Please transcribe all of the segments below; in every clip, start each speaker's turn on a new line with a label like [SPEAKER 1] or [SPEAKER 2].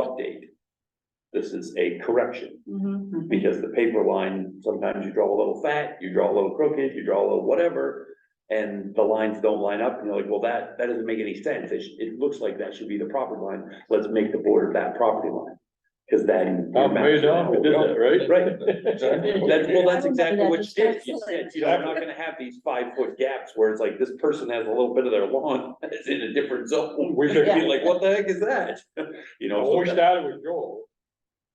[SPEAKER 1] update. This is a correction,
[SPEAKER 2] Mhm.
[SPEAKER 1] because the paper line, sometimes you draw a little fat, you draw a little crooked, you draw a little whatever. And the lines don't line up, and you're like, well, that, that doesn't make any sense, it, sh- it looks like that should be the property line, let's make the border that property line. Cause that.
[SPEAKER 3] Tom Maydon, we did that, right?
[SPEAKER 1] Right. That's, well, that's
[SPEAKER 2] I remember
[SPEAKER 1] exactly
[SPEAKER 2] that
[SPEAKER 1] what she did, she said,
[SPEAKER 2] discussion.
[SPEAKER 1] you know, I'm not gonna have these five foot gaps where it's like, this person has a little bit of their lawn, that's in a different zone.
[SPEAKER 3] We
[SPEAKER 1] You'd
[SPEAKER 3] should,
[SPEAKER 1] be like, what the heck is that? You know. so
[SPEAKER 3] when we
[SPEAKER 1] that-
[SPEAKER 3] started with Joel,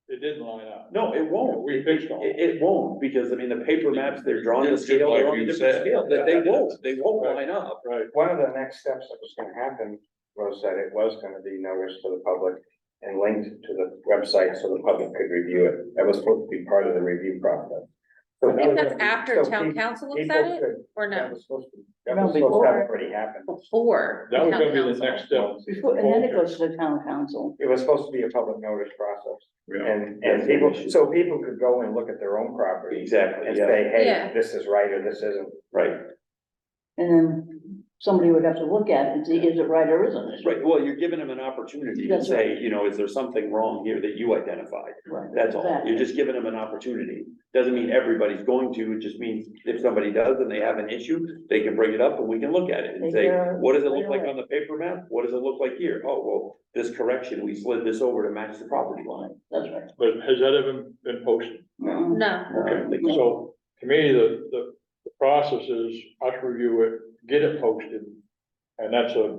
[SPEAKER 3] it didn't line up.
[SPEAKER 1] No, it won't,
[SPEAKER 3] We fixed all.
[SPEAKER 1] it, it won't, because I mean, the paper maps, they're drawn to
[SPEAKER 3] Just
[SPEAKER 1] scale,
[SPEAKER 3] like
[SPEAKER 1] they're on
[SPEAKER 3] you
[SPEAKER 1] a different
[SPEAKER 3] said.
[SPEAKER 1] scale, that they won't, they won't
[SPEAKER 3] Right.
[SPEAKER 1] line up.
[SPEAKER 3] Right.
[SPEAKER 4] One of the next steps that was gonna happen was that it was gonna be noticed to the public and linked to the website so the public could review it. That was supposed to be part of the review process. So
[SPEAKER 5] I
[SPEAKER 4] that was
[SPEAKER 5] think that's
[SPEAKER 4] gonna be-
[SPEAKER 5] after
[SPEAKER 4] so
[SPEAKER 5] town
[SPEAKER 4] pe-
[SPEAKER 5] council looks
[SPEAKER 4] people
[SPEAKER 5] at it,
[SPEAKER 4] could-
[SPEAKER 5] or
[SPEAKER 4] That
[SPEAKER 5] no,
[SPEAKER 4] was supposed to, that
[SPEAKER 2] No,
[SPEAKER 4] was supposed to
[SPEAKER 2] before.
[SPEAKER 4] have already happened.
[SPEAKER 5] before.
[SPEAKER 3] That was
[SPEAKER 5] town
[SPEAKER 3] gonna be the
[SPEAKER 5] council.
[SPEAKER 3] next step.
[SPEAKER 2] Before, and then it goes to the town council.
[SPEAKER 4] It was supposed to be a public notice process
[SPEAKER 3] Yeah.
[SPEAKER 4] and, and people, so people could go and look at their own property
[SPEAKER 1] Exactly,
[SPEAKER 4] and
[SPEAKER 1] yeah,
[SPEAKER 4] say, hey,
[SPEAKER 5] Yeah.
[SPEAKER 4] this is right or this isn't.
[SPEAKER 1] right,
[SPEAKER 2] And then somebody would have to look at it and see, is it right or isn't it?
[SPEAKER 1] right, well, you're giving them an opportunity to
[SPEAKER 2] That's
[SPEAKER 1] say,
[SPEAKER 2] right.
[SPEAKER 1] you know, is there something wrong here that you identified?
[SPEAKER 2] Right,
[SPEAKER 1] That's all,
[SPEAKER 2] exactly.
[SPEAKER 1] you're just giving them an opportunity, doesn't mean everybody's going to, it just means if somebody does and they have an issue, they can bring it up and we can look at it and
[SPEAKER 2] Take
[SPEAKER 1] say,
[SPEAKER 2] care of it
[SPEAKER 1] what does it look
[SPEAKER 2] right
[SPEAKER 1] like
[SPEAKER 2] away.
[SPEAKER 1] on the paper map? What does it look like here? Oh, well, this correction, we slid this over to match the property line.
[SPEAKER 2] That's right. Mm-hmm.
[SPEAKER 3] But has that ever been posted?
[SPEAKER 2] No.
[SPEAKER 5] No,
[SPEAKER 1] Okay.
[SPEAKER 3] So to me, the, the, the process is us review it, get it posted. And that's a,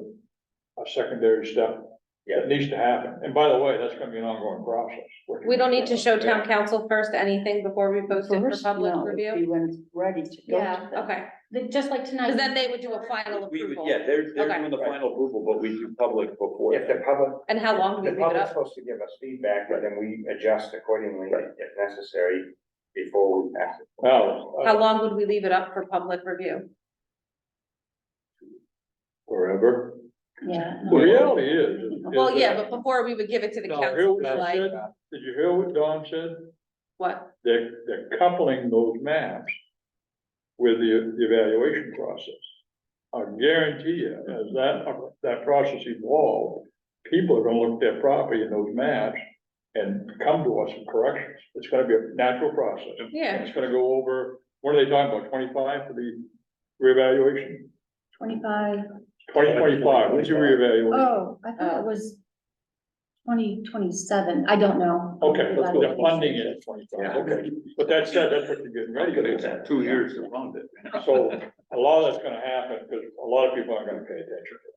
[SPEAKER 3] a secondary step.
[SPEAKER 4] Yeah.
[SPEAKER 3] It needs to happen. And by the way, that's gonna be an ongoing process.
[SPEAKER 5] we don't need to show town council first anything before we post it for
[SPEAKER 2] First,
[SPEAKER 5] public
[SPEAKER 2] no, it'd
[SPEAKER 5] review?
[SPEAKER 2] be When it's ready to go.
[SPEAKER 5] Yeah, okay,
[SPEAKER 6] The- Just like tonight.
[SPEAKER 5] because then they would do a final
[SPEAKER 1] We would,
[SPEAKER 5] approval.
[SPEAKER 1] yeah, they're, they're
[SPEAKER 5] Okay.
[SPEAKER 1] doing the final approval, but we do public before
[SPEAKER 4] If
[SPEAKER 1] that.
[SPEAKER 4] the public
[SPEAKER 5] And how long do
[SPEAKER 4] The
[SPEAKER 5] we leave it
[SPEAKER 4] public's
[SPEAKER 5] up?
[SPEAKER 4] supposed to give us feedback, and then we adjust accordingly
[SPEAKER 1] Right.
[SPEAKER 4] if necessary before we pass it.
[SPEAKER 3] Now, uh,
[SPEAKER 5] How long would we leave it up for public review?
[SPEAKER 3] forever.
[SPEAKER 2] Yeah.
[SPEAKER 3] The reality is. is
[SPEAKER 5] Well, yeah,
[SPEAKER 3] that-
[SPEAKER 5] but before we would give it to the
[SPEAKER 3] Now, hear
[SPEAKER 5] council,
[SPEAKER 3] what I
[SPEAKER 5] like,
[SPEAKER 3] said? Did you hear what Don said?
[SPEAKER 5] what?
[SPEAKER 3] They're, they're coupling those maps with the, the evaluation process. I guarantee you, as that, that process evolves, people are gonna look at their property in those maps and come to us with corrections. It's gonna be a natural process.
[SPEAKER 5] Yeah.
[SPEAKER 3] It's gonna go over, what are they talking about, twenty-five for the reevaluation?
[SPEAKER 6] Twenty-five,
[SPEAKER 3] Twenty twenty-five, when's your reevaluation?
[SPEAKER 6] oh, I thought it was twenty twenty-seven, I don't know.
[SPEAKER 3] Okay,
[SPEAKER 6] About
[SPEAKER 3] the
[SPEAKER 6] it.
[SPEAKER 3] funding is twenty-five, okay. But that said, that's what you're getting ready for.
[SPEAKER 1] Two years to fund it.
[SPEAKER 3] So a lot of that's gonna happen, because a lot of people aren't gonna pay attention. to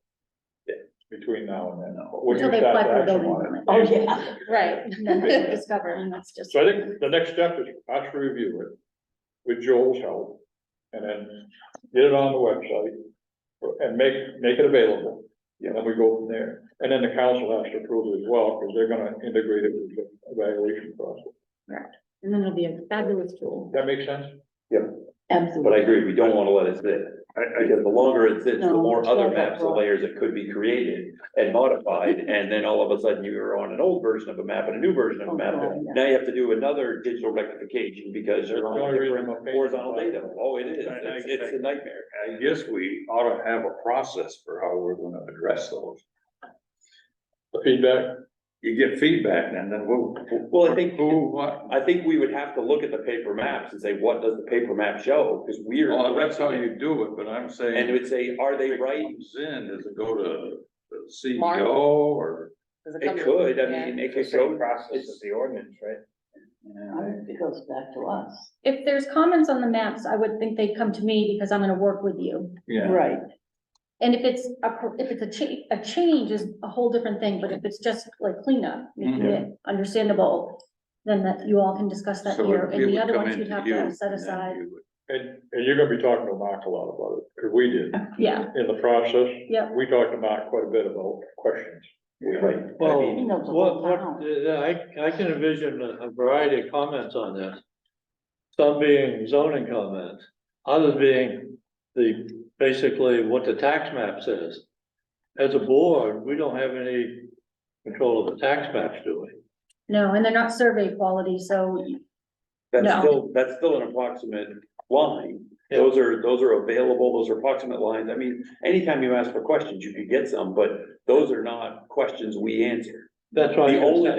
[SPEAKER 3] it Between now and then. when you
[SPEAKER 6] Until they
[SPEAKER 3] start
[SPEAKER 6] apply
[SPEAKER 3] to
[SPEAKER 6] for a
[SPEAKER 3] action
[SPEAKER 6] building
[SPEAKER 3] on it.
[SPEAKER 6] permit.
[SPEAKER 2] Oh, yeah.
[SPEAKER 5] Right.
[SPEAKER 6] Then they discover, and that's just.
[SPEAKER 3] So I think the next step is us to review it with Joel's help, and then get it on the website and make, make it available. And then we go from there, and then the council has to approve it as well, because they're gonna integrate it with the evaluation process.
[SPEAKER 6] And then it'll be a fabulous tool.
[SPEAKER 3] That make sense?
[SPEAKER 1] But I
[SPEAKER 2] Absolutely.
[SPEAKER 1] agree, we don't wanna let it sit, because the longer it sits, the
[SPEAKER 2] No,
[SPEAKER 1] more
[SPEAKER 2] it's
[SPEAKER 1] other
[SPEAKER 2] not that
[SPEAKER 1] maps and
[SPEAKER 2] broad.
[SPEAKER 1] layers that could be created and modified, and then all of a sudden you're on an old version of a map and a new version of a
[SPEAKER 2] Oh,
[SPEAKER 1] map.
[SPEAKER 2] God, yeah.
[SPEAKER 1] Now you have to do another digital rectification because you're
[SPEAKER 3] That's
[SPEAKER 1] on
[SPEAKER 3] the only reason
[SPEAKER 1] different
[SPEAKER 3] I'm a patient.
[SPEAKER 1] horizontal data, oh, it is,
[SPEAKER 7] I- I-
[SPEAKER 1] it's, it's a nightmare.
[SPEAKER 7] I guess we ought to have a process for how we're gonna address those.
[SPEAKER 3] The feedback,
[SPEAKER 7] You get feedback and then we'll.
[SPEAKER 1] Well, I think-
[SPEAKER 7] Who, what?
[SPEAKER 1] I think we would have to look at the paper maps and say, what does the paper map show, because we're.
[SPEAKER 7] Well, that's how you do it, but I'm saying.
[SPEAKER 1] And it would say, are they right?
[SPEAKER 7] Comes in, does it go to the
[SPEAKER 5] Mark?
[SPEAKER 7] CEO or?
[SPEAKER 5] Does it come
[SPEAKER 1] It
[SPEAKER 5] to-
[SPEAKER 1] could, I
[SPEAKER 5] Yeah.
[SPEAKER 1] mean, it
[SPEAKER 4] It's the
[SPEAKER 1] could
[SPEAKER 4] same
[SPEAKER 1] go,
[SPEAKER 4] process
[SPEAKER 1] it's-
[SPEAKER 4] as the ordinance, right?
[SPEAKER 2] I think It goes back to us.
[SPEAKER 6] If there's comments on the maps, I would think they'd come to me because I'm gonna work with you.
[SPEAKER 7] Yeah.
[SPEAKER 2] Right.
[SPEAKER 6] And if it's a, pro- if it's a cha- a change is a whole different thing, but if it's just like cleanup, making it understandable, then that you all can discuss that
[SPEAKER 7] Mm-hmm. So it-
[SPEAKER 6] here, and
[SPEAKER 7] it
[SPEAKER 6] the
[SPEAKER 7] would
[SPEAKER 6] other
[SPEAKER 7] come
[SPEAKER 6] ones you'd
[SPEAKER 7] into
[SPEAKER 6] have
[SPEAKER 7] you,
[SPEAKER 6] to
[SPEAKER 7] and
[SPEAKER 6] set
[SPEAKER 7] then
[SPEAKER 6] aside,
[SPEAKER 7] you would-
[SPEAKER 3] and, and you're gonna be talking to Mark a lot about it, because we did.
[SPEAKER 6] yeah,
[SPEAKER 3] in the process.
[SPEAKER 6] Yeah.
[SPEAKER 3] We talked to Mark quite a bit about questions.
[SPEAKER 1] right,
[SPEAKER 2] I
[SPEAKER 8] Well,
[SPEAKER 2] mean, he knows the
[SPEAKER 8] what,
[SPEAKER 2] whole
[SPEAKER 8] what,
[SPEAKER 2] town.
[SPEAKER 8] uh, I, I can envision a a variety of comments on this. Some being zoning comments, others being the, basically what the tax map says. As a board, we don't have any control of the tax maps, do we?
[SPEAKER 6] no, and they're not survey quality, so
[SPEAKER 1] that's
[SPEAKER 6] No.
[SPEAKER 1] still, that's still an approximate line. Those are, those are available, those are approximate lines, I mean, anytime you ask for questions, you could get some, but those are not questions we answer.
[SPEAKER 8] That's why.
[SPEAKER 1] The
[SPEAKER 8] I
[SPEAKER 1] only
[SPEAKER 8] said-